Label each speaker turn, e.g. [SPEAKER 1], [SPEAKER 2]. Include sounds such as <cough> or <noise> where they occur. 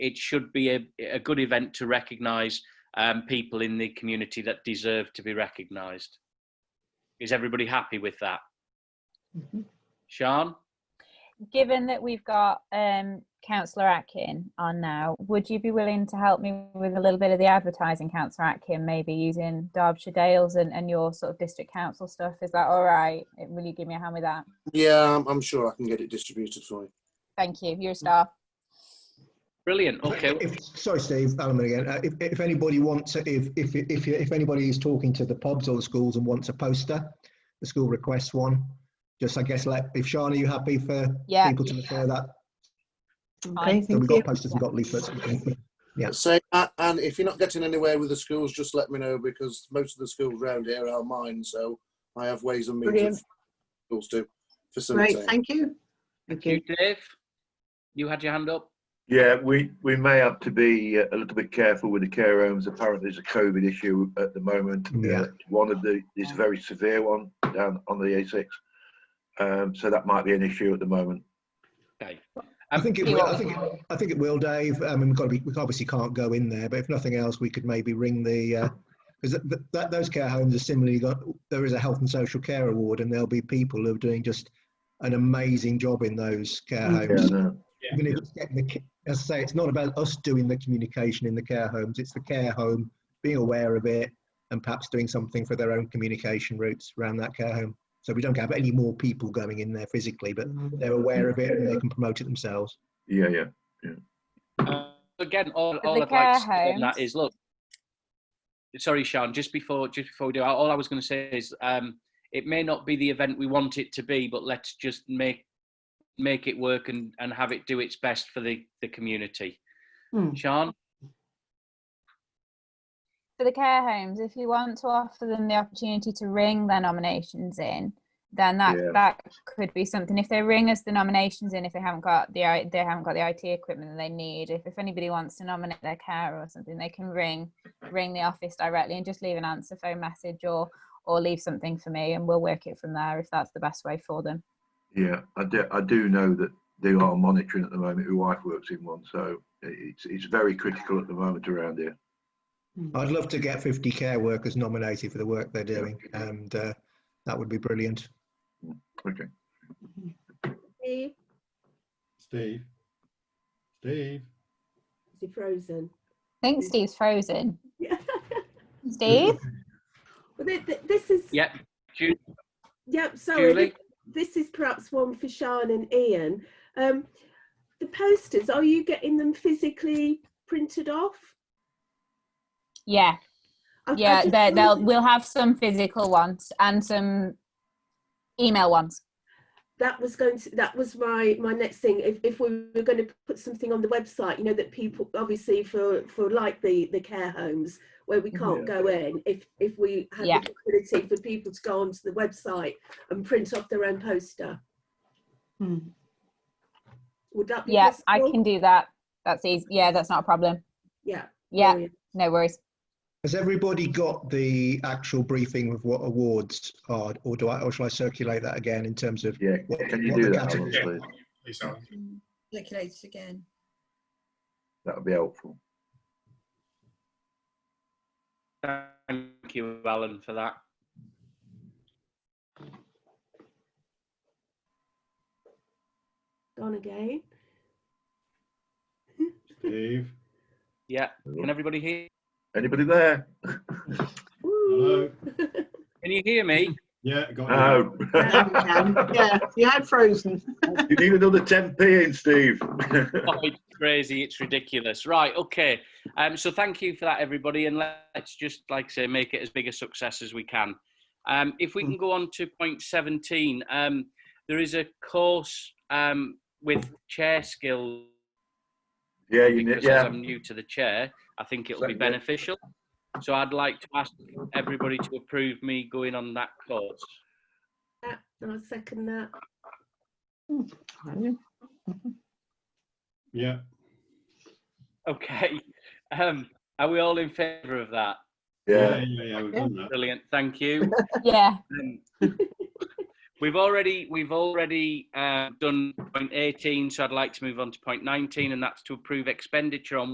[SPEAKER 1] it should be a, a good event to recognise um, people in the community that deserve to be recognised. Is everybody happy with that?
[SPEAKER 2] Mhm.
[SPEAKER 1] Sean?
[SPEAKER 3] Given that we've got um, Councillor Atkin on now, would you be willing to help me with a little bit of the advertising, Councillor Atkin, maybe using Derbyshire Dales and, and your sort of district council stuff? Is that all right? Will you give me a hand with that?
[SPEAKER 4] Yeah, I'm, I'm sure I can get it distributed for you.
[SPEAKER 3] Thank you. You're a star.
[SPEAKER 1] Brilliant. Okay.
[SPEAKER 2] If, sorry, Steve, Alan again. Uh, if, if anybody wants, if, if, if, if anybody is talking to the pubs or the schools and wants a poster, the school requests one. Just, I guess, let, if Sean, are you happy for
[SPEAKER 3] Yeah.
[SPEAKER 2] people to refer that?
[SPEAKER 3] Fine.
[SPEAKER 2] So we've got posters, we've got leaflets. Yeah.
[SPEAKER 4] So, uh, and if you're not getting anywhere with the schools, just let me know because most of the schools around here are mine. So I have ways and means
[SPEAKER 5] Brilliant.
[SPEAKER 4] of schools to facilitate.
[SPEAKER 5] Great, thank you. Thank
[SPEAKER 1] You,
[SPEAKER 5] you.
[SPEAKER 1] Dave? You had your hand up?
[SPEAKER 6] Yeah, we, we may have to be uh, a little bit careful with the care homes. Apparently, there's a COVID issue at the moment.
[SPEAKER 2] Yeah.
[SPEAKER 6] Uh, one of the is a very severe one down on the A6, um, so that might be an issue at the moment.
[SPEAKER 1] Okay.
[SPEAKER 2] I think it will, I think, it- I think it will, Dave. I mean, we've got to be, we obviously can't go in there, but if nothing else, we could maybe ring the, uh, because that, those care homes are similarly got, there is a health and social care award and there'll be people who are doing just an amazing job in those care
[SPEAKER 5] Mm.
[SPEAKER 6] Yeah,
[SPEAKER 2] homes.
[SPEAKER 6] no.
[SPEAKER 1] Yeah.
[SPEAKER 2] Even if it's getting the, ki- as I say, it's not about us doing the communication in the care homes, it's the care home being aware of it and perhaps doing something for their own communication routes around that care home. So we don't have any more people going in there physically, but they're aware of it and they can promote it themselves.
[SPEAKER 6] yeah, yeah.
[SPEAKER 1] Uh, again, all,
[SPEAKER 3] But
[SPEAKER 1] all
[SPEAKER 3] the
[SPEAKER 1] I'd like to
[SPEAKER 3] care
[SPEAKER 1] say on
[SPEAKER 3] homes-
[SPEAKER 1] that is look. Sorry, Sean. Just before just before we do, all I was going to say is um, it may not be the event we want it to be, but let's just make make it work and, and have it do its best for the the community.
[SPEAKER 3] Hmm.
[SPEAKER 5] Mm.
[SPEAKER 1] Sean,
[SPEAKER 3] for the care homes, if you want to offer them the opportunity to ring their nominations in, then that
[SPEAKER 6] Yeah.
[SPEAKER 3] that could be something. If they ring us the nominations in, if they haven't got the I- they haven't got the IT equipment that they need, if, if anybody wants to nominate their carer or something, they can ring ring the office directly and just leave an answer phone message or or leave something for me, and we'll work it from there if that's the best way for them.
[SPEAKER 6] Yeah, I do, I do know that they are monitoring at the moment. My wife works in one, so it's it's very critical at the moment around here.
[SPEAKER 2] I'd love to get 50 care workers nominated for the work they're doing, and uh, that would be brilliant.
[SPEAKER 6] Okay.
[SPEAKER 7] Steve,
[SPEAKER 8] Steve. Steve.
[SPEAKER 7] is he frozen?
[SPEAKER 3] I think Steve's frozen.
[SPEAKER 7] Yeah.
[SPEAKER 3] Steve,
[SPEAKER 7] Well, th- th- this is,
[SPEAKER 1] yeah,
[SPEAKER 7] yep, sorry.
[SPEAKER 1] Julie.
[SPEAKER 7] This is perhaps one for Sean and Ian. Um, the posters, are you getting them physically printed off?
[SPEAKER 3] yeah,
[SPEAKER 7] I- I
[SPEAKER 3] yeah,
[SPEAKER 7] just
[SPEAKER 3] they they'll
[SPEAKER 7] wondered-
[SPEAKER 3] we'll have some physical ones and some email ones.
[SPEAKER 7] that was going to that was my my next thing if, if we were going to put something on the website you know that people obviously for for like the the care homes where we can't go in if if we had
[SPEAKER 3] Yeah.
[SPEAKER 7] the ability for people to go onto the website and print off their own poster
[SPEAKER 5] Mm.
[SPEAKER 7] would that be
[SPEAKER 3] Yes, I
[SPEAKER 7] possible?
[SPEAKER 3] can do that. That's easy. Yeah, that's not a problem.
[SPEAKER 7] yeah
[SPEAKER 3] Yeah,
[SPEAKER 7] brilliant.
[SPEAKER 3] no worries.
[SPEAKER 2] Has everybody got the actual briefing of what awards are, or do I, or shall I circulate that again in terms of?
[SPEAKER 6] Yeah,
[SPEAKER 2] What-
[SPEAKER 6] can you
[SPEAKER 2] what the
[SPEAKER 6] do that,
[SPEAKER 2] category-
[SPEAKER 6] Alan, please?
[SPEAKER 8] Please, Alan.
[SPEAKER 5] Circulate it again.
[SPEAKER 6] That would be helpful.
[SPEAKER 1] Thank you, Alan, for that.
[SPEAKER 7] gone again
[SPEAKER 8] Steve.
[SPEAKER 1] Yeah, can everybody hear?
[SPEAKER 6] Anybody there? <laughs>
[SPEAKER 7] Ooh. <laughs>
[SPEAKER 8] Hello.
[SPEAKER 1] Can you hear me?
[SPEAKER 8] Yeah, got you.
[SPEAKER 6] No.
[SPEAKER 5] There we go.
[SPEAKER 6] <laughs>
[SPEAKER 5] Yeah, you had frozen.
[SPEAKER 6] You need another 10p in, Steve.
[SPEAKER 1] oh, it's crazy. It's ridiculous. Right. Okay. Um, so thank you for that, everybody. And let's just, like I say, make it as big a success as we can. Um, if we can go on to point 17, um, there is a course um, with chair skills.
[SPEAKER 6] yeah, you need,
[SPEAKER 1] Because as
[SPEAKER 6] yeah.
[SPEAKER 1] I'm new to the chair, I think it'll be
[SPEAKER 6] Certainly.
[SPEAKER 1] beneficial. So I'd like to ask everybody to approve me going on that course.
[SPEAKER 7] Yeah, i'll second that
[SPEAKER 8] Yeah.
[SPEAKER 1] Okay. <laughs> Um, are we all in favour of that?
[SPEAKER 6] Yeah.
[SPEAKER 8] Yeah, yeah, yeah, we've done that.
[SPEAKER 1] Brilliant. Thank you.
[SPEAKER 3] Yeah,
[SPEAKER 1] Um, We've already we've already uh, done point 18, so I'd like to move on to point 19, and that's to approve expenditure on